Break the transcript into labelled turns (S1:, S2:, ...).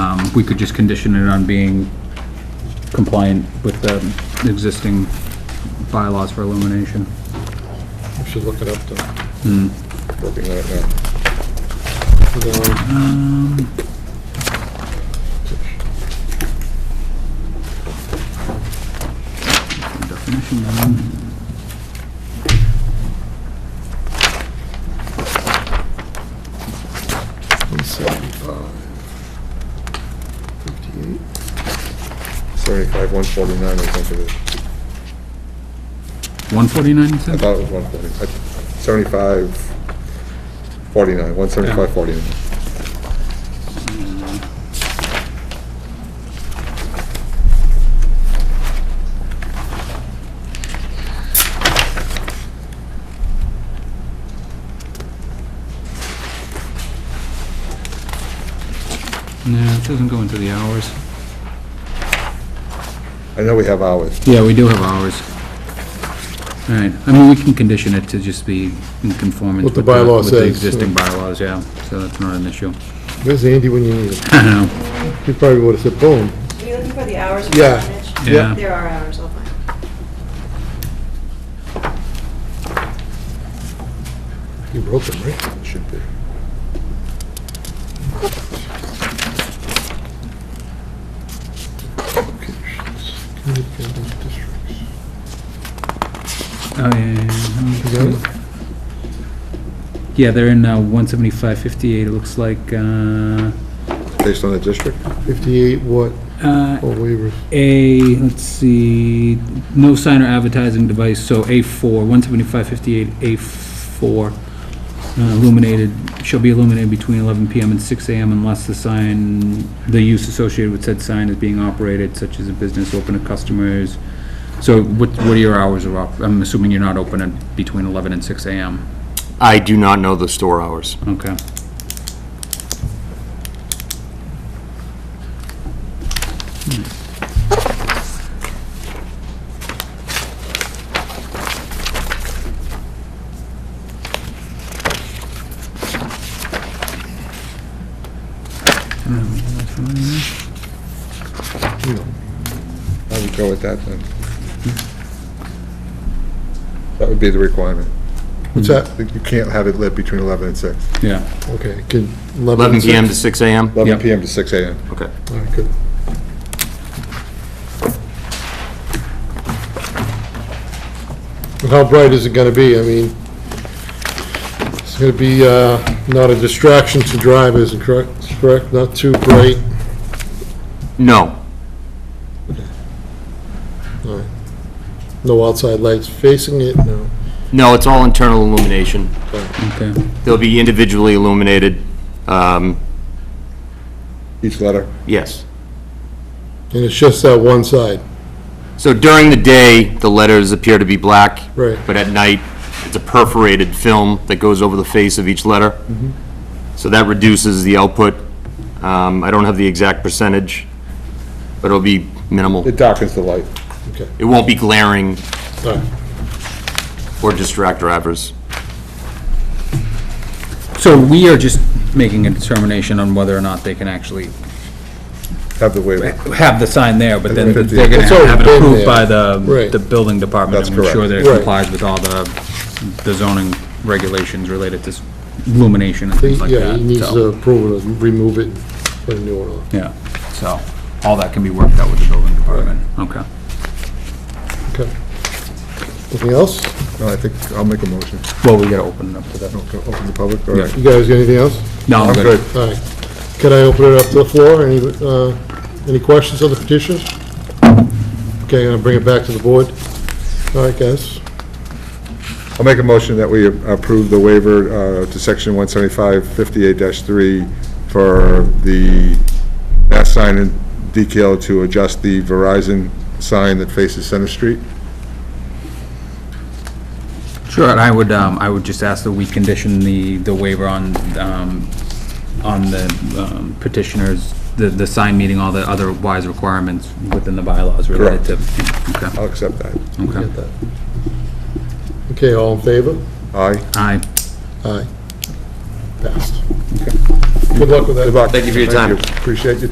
S1: Um, we could just condition it on being compliant with the existing bylaws for illumination.
S2: We should look it up, though. Working on it now. The-
S1: Definition, um,
S2: One seventy-five. Fifty-eight. Seventy-five, one forty-nine, I think it is.
S1: 149, you
S2: I
S1: said?
S2: thought it was one forty. Seventy-five, forty-nine, one seventy-five, forty-nine.
S1: No, it doesn't go into the hours.
S2: I know we have hours.
S1: Yeah, we do have hours. All right, I mean, we can condition it to just be in conformance
S2: What
S1: with the...
S2: the bylaw
S1: with the
S2: says,
S1: existing bylaws, yeah, so that's not an issue.
S2: Where's Andy when you need him?
S1: I don't know.
S2: He probably would have said, boom.
S3: Are you looking for the hours? of
S2: Yeah.
S3: signage?
S1: Yeah.
S3: There are hours, I'll find.
S2: He wrote them, right? Should be.
S1: Oh, yeah,
S2: You got it?
S1: yeah. Yeah, they're in uh, 17558, it looks like, uh,
S2: Based on the district?
S4: 58 what,
S1: uh,
S4: or waivers?
S1: A, let's see, no sign or advertising device, so A4, 17558, A4, uh, illuminated, shall be illuminated between 11 PM and 6 AM unless the sign, the use associated with said sign is being operated, such as a business open to customers. So what, what are your hours of, op- I'm assuming you're not open at between 11 and 6 AM?
S5: I do not know the store hours.
S1: Okay.
S2: I would go with that then. That would be the requirement.
S4: What's that?
S2: You can't have it lit between 11 and 6.
S1: Yeah.
S4: Okay, can...
S5: 11 PM to 6 AM?
S2: 11
S1: Yep.
S2: PM to 6 AM.
S5: Okay.
S4: All right, good. And how bright is it gonna be? I mean, it's gonna be, uh, not a distraction to drivers, correct? Correct, not too bright?
S5: No,
S4: All right. No outside lights facing it, no.
S5: no, it's all internal illumination.
S1: Okay.
S5: They'll be individually illuminated, um,
S2: Each letter.
S5: yes.
S4: And it's just that one side,
S5: So during the day, the letters appear to be black.
S4: Right.
S5: But at night, it's a perforated film that goes over the face of each letter. So that reduces the output. Um, I don't have the exact percentage, but it'll be minimal.
S2: It darkens the light.
S4: okay.
S5: It won't be glaring
S4: All right.
S5: or distract drivers.
S1: So we are just making a determination on whether or not they can actually
S2: Have the waiver.
S1: have the sign there, but then
S2: It's
S1: they're gonna
S4: already
S1: have it
S4: been
S1: approved
S4: there.
S1: by the,
S4: Right.
S1: the building department
S2: That's
S1: to ensure
S2: correct.
S1: that it
S4: Right.
S1: complies with all the, the zoning regulations related to s- illumination and things like
S4: Yeah,
S1: that.
S4: he needs
S1: so-
S4: to approve it, remove it, and put a new one on.
S1: Yeah, so, all that can be worked out with the building department, okay.
S4: Okay. Anything else?
S2: No, I think I'll make a motion.
S1: Well, we gotta open it up to that.
S2: Okay, Open the public, all
S1: Yeah.
S2: right.
S4: You guys got anything else?
S1: No, I'm
S2: I'm
S1: good.
S2: good.
S4: All right. Can I open it up to the floor? Any, uh, any questions on the petitions? Okay, I'm gonna bring it back to the board. All right, guys.
S2: I'll make a motion that we approve the waiver uh, to section 175-58-3 for the mass sign and decal to adjust the Verizon sign that faces Center Street.
S1: Sure, and I would, um, I would just ask that we condition the, the waiver on, um, on the um, petitioners, the, the sign meeting all the otherwise requirements within the bylaws related to. Okay,
S2: I'll accept that.
S1: okay.
S4: Get that. Okay, all in favor?
S2: Aye.
S1: Aye.
S4: Aye. Passed. Good luck with that.
S2: Good luck.
S5: Thank you for your time.
S2: Appreciate your